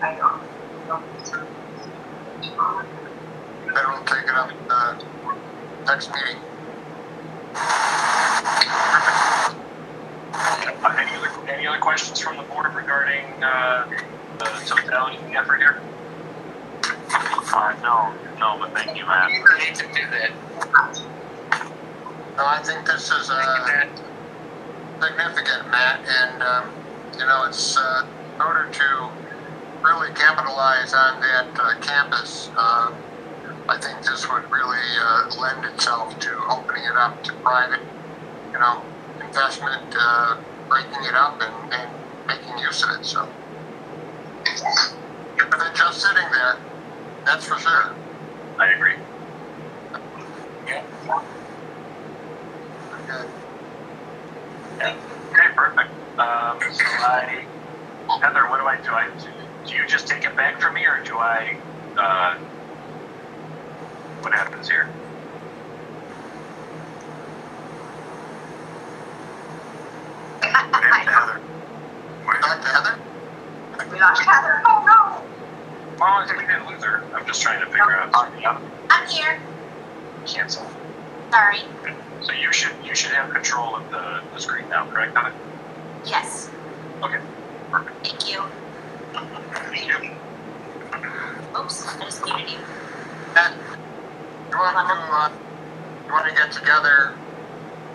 uh, other questions from the board regarding uh, the totality of the effort here? Uh, no, no, but thank you, Matt. You need to do that. No, I think this is uh, significant, Matt, and, um, you know, it's uh, in order to really capitalize on that uh, campus, uh, I think this would really uh, lend itself to opening it up to private, you know, investment, uh, breaking it up and, and making use of it, so. Better than just sitting there, that's for sure. I agree. Good. Okay, perfect. Um, so I, Heather, what do I do? I do you just take it back from me, or do I? Uh, what happens here? What happened to Heather? Back to Heather? We lost Heather. Oh no, Well, we didn't lose her. I'm just trying to figure out. I'm here. Cancel. Sorry. So you should you should have control of the, the screen now, correct? Heather? Yes, Okay. Perfect. thank you. Thank you. Oops, I just muted you. Matt, you want to, uh, you want to get together?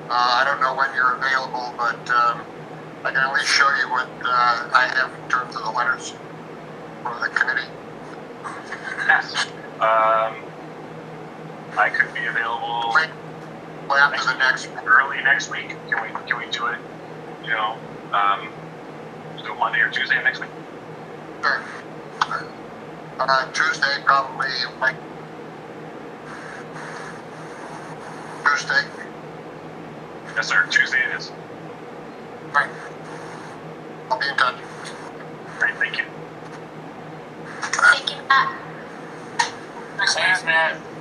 Uh, I don't know when you're available, but, um, I can at least show you what, uh, I have in terms of the letters for the committee. Yes. Um, I could be available. Wait, wait after the next, early next week. Can we can we do it? You know, um, do it Monday or Tuesday of next week. sure. Uh, Tuesday probably, like. Tuesday, Yes, sir. Tuesday it is. right. I'll be in touch. Great, thank you. Thank you, Matt. Thanks, Matt.